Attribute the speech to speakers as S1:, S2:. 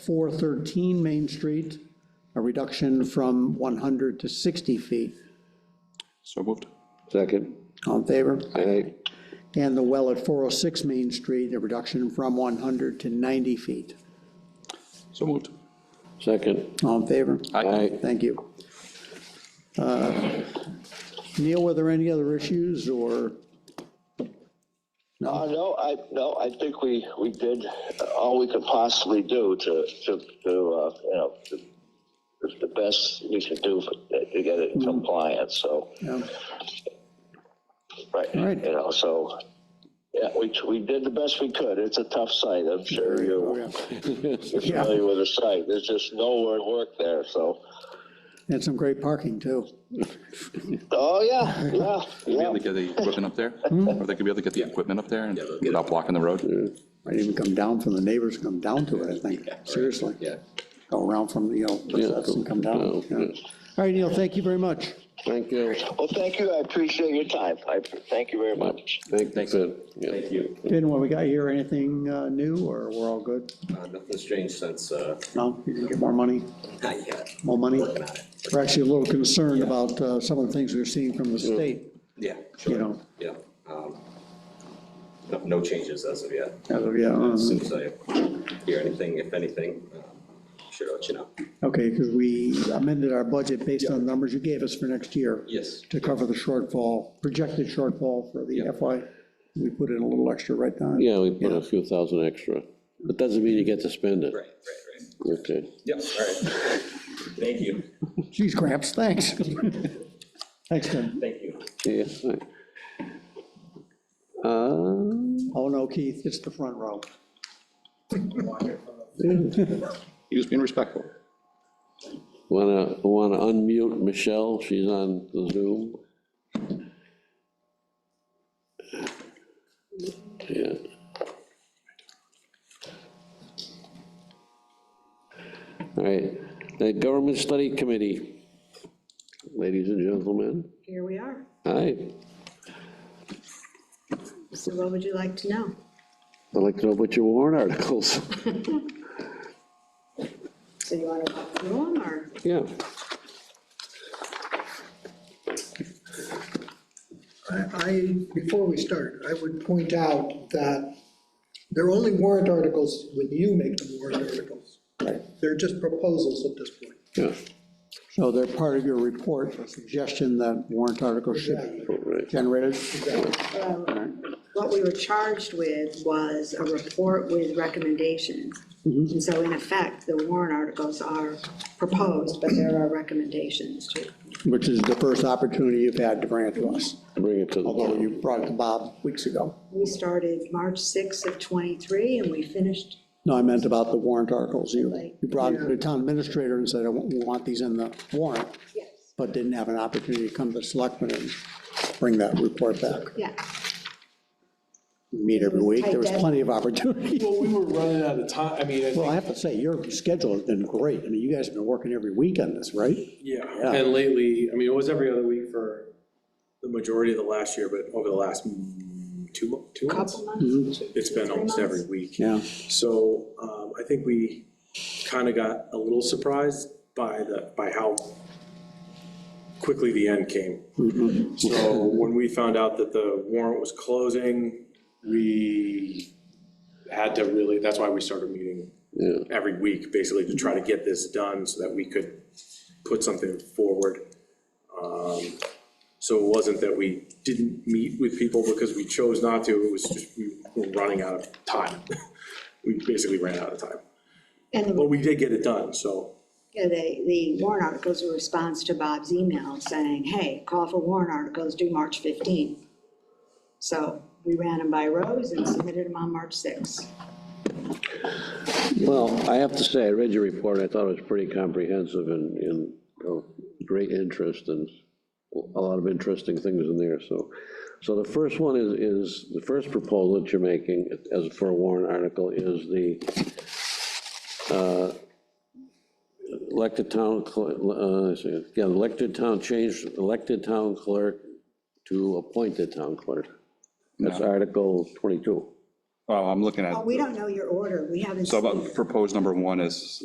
S1: 413 Main Street, a reduction from 100 to 60 feet.
S2: So moved.
S3: Second.
S1: All in favor?
S3: Aye.
S1: And the well at 406 Main Street, a reduction from 100 to 90 feet.
S2: So moved.
S3: Second.
S1: All in favor?
S3: Aye.
S1: Thank you. Uh, Neil, were there any other issues or,
S4: Uh, no, I, no, I think we, we did all we could possibly do to, to, to, uh, you know, to- it's the best we could do for- to get
S1: Mm-hmm.
S4: it compliant, so,
S1: no?
S4: right,
S1: Right.
S4: you know, so, yeah, we, we did the best we could. It's a tough site, I'm sure you're you're
S1: Yeah.
S4: familiar with the site. There's just nowhere to work there, so.
S1: And some great parking, too.
S4: Oh, yeah, yeah,
S2: Be
S4: yeah.
S2: able to get the equipment up there? Or they could be able to get the equipment up there and without blocking the road?
S1: Might even come down from the neighbors, come down to it, I think, seriously. Yeah. Go around from, you know, recess and come down.
S3: Yeah.
S1: yeah. All right, Neil, thank you very much.
S3: Thank you.
S4: Well, thank you. I appreciate your time. I, thank you very much.
S3: Thank you. Thank you.
S1: Didn't what we got here, anything uh, new, or we're all good?
S5: Uh, Nothing's changed since, uh,
S1: No, you can get more money,
S5: not yet,
S1: more money?
S5: working on it.
S1: We're actually a little concerned about uh, some of the things we're seeing from the state,
S5: Yeah,
S1: you
S5: sure,
S1: know,
S5: yeah. um, No no changes as of yet.
S1: as of, yeah,
S5: As
S1: um,
S5: soon as I hear anything, if anything, um, should let you know.
S1: okay, because we amended our budget based on the numbers you gave us for next year.
S5: Yes.
S1: To cover the shortfall, projected shortfall for the
S5: Yeah.
S1: FY, we put in a little extra right now.
S3: Yeah, we put a few thousand extra. That doesn't mean you get to spend it.
S5: Right, right, right.
S3: Okay.
S5: Yep, all right. Thank you,
S1: Geez, Gramps, thanks. Thanks, Tim.
S5: thank you.
S3: Yeah. right. Uh,
S1: Oh, no, Keith, it's the front row.
S2: He was being respectful.
S3: Wanna, wanna unmute Michelle? She's on the Zoom. Yeah. All right, the Government Study Committee, ladies and gentlemen,
S6: Here we are.
S3: hi,
S6: So what would you like to know?
S3: I'd like to know about your warrant articles.
S6: So you want to walk through them or?
S3: Yeah,
S7: I- I, before we start, I would point out that they're only warrant articles when you make them warrant articles. They're just proposals at this point.
S3: yeah,
S1: So they're part of your report, a suggestion that warrant articles should be
S3: right,
S1: generated.
S6: What we were charged with was a report with recommendations. And so in effect, the warrant articles are proposed, but there are recommendations too.
S1: Which is the first opportunity you've had to bring it to us,
S3: bring it to the.
S1: although you brought it to Bob weeks ago.
S6: We started March 6th of '23 and we finished
S1: No, I meant about the warrant articles. You, you brought it to the town administrator and said, I want- we want these in the warrant,
S6: Yes.
S1: but didn't have an opportunity to come to the selectmen and bring that report back.
S6: Yeah,
S1: We Meet every week, there was plenty of opportunity.
S8: Well, we were running out of time, I mean, I
S1: Well, I
S8: think,
S1: have to say, your schedule has been great. I mean, you guys have been working every week on this, right?
S8: yeah, and lately, I mean, it was every other week for the majority of the last year, but over the last mm, two, mo- two months,
S6: couple months. two-
S8: it's been
S6: three
S8: almost
S6: months.
S8: every week.
S1: Yeah.
S8: So um, I think we kind of got a little surprised by the, by how quickly the end came. So when we found out that the warrant was closing, we had to really, that's why we started meeting
S3: Yeah.
S8: every week, basically, to try to get this done so that we could put something forward. Um, So it wasn't that we didn't meet with people because we chose not to, it was just we were running out of time. We basically ran out of time,
S6: And the
S8: but we did get it done, so,
S6: Yeah, they, the warrant articles were a response to Bob's email saying, hey, call for warrant articles due March 15th. So we ran them by rows and submitted them on March 6th.
S3: Well, I have to say, I read your report, I thought it was pretty comprehensive and, and of great interest and a lot of interesting things in there, so. So the first one is, is, the first proposal that you're making as for a warrant article is the uh, elected town, cl- uh, let's see, yeah, elected town change, elected town clerk to appointed town clerk. That's Article twenty-two.
S2: Well, I'm looking at,
S6: Well, we don't know your order, we haven't.
S2: so
S6: seen it.
S2: about proposed number one is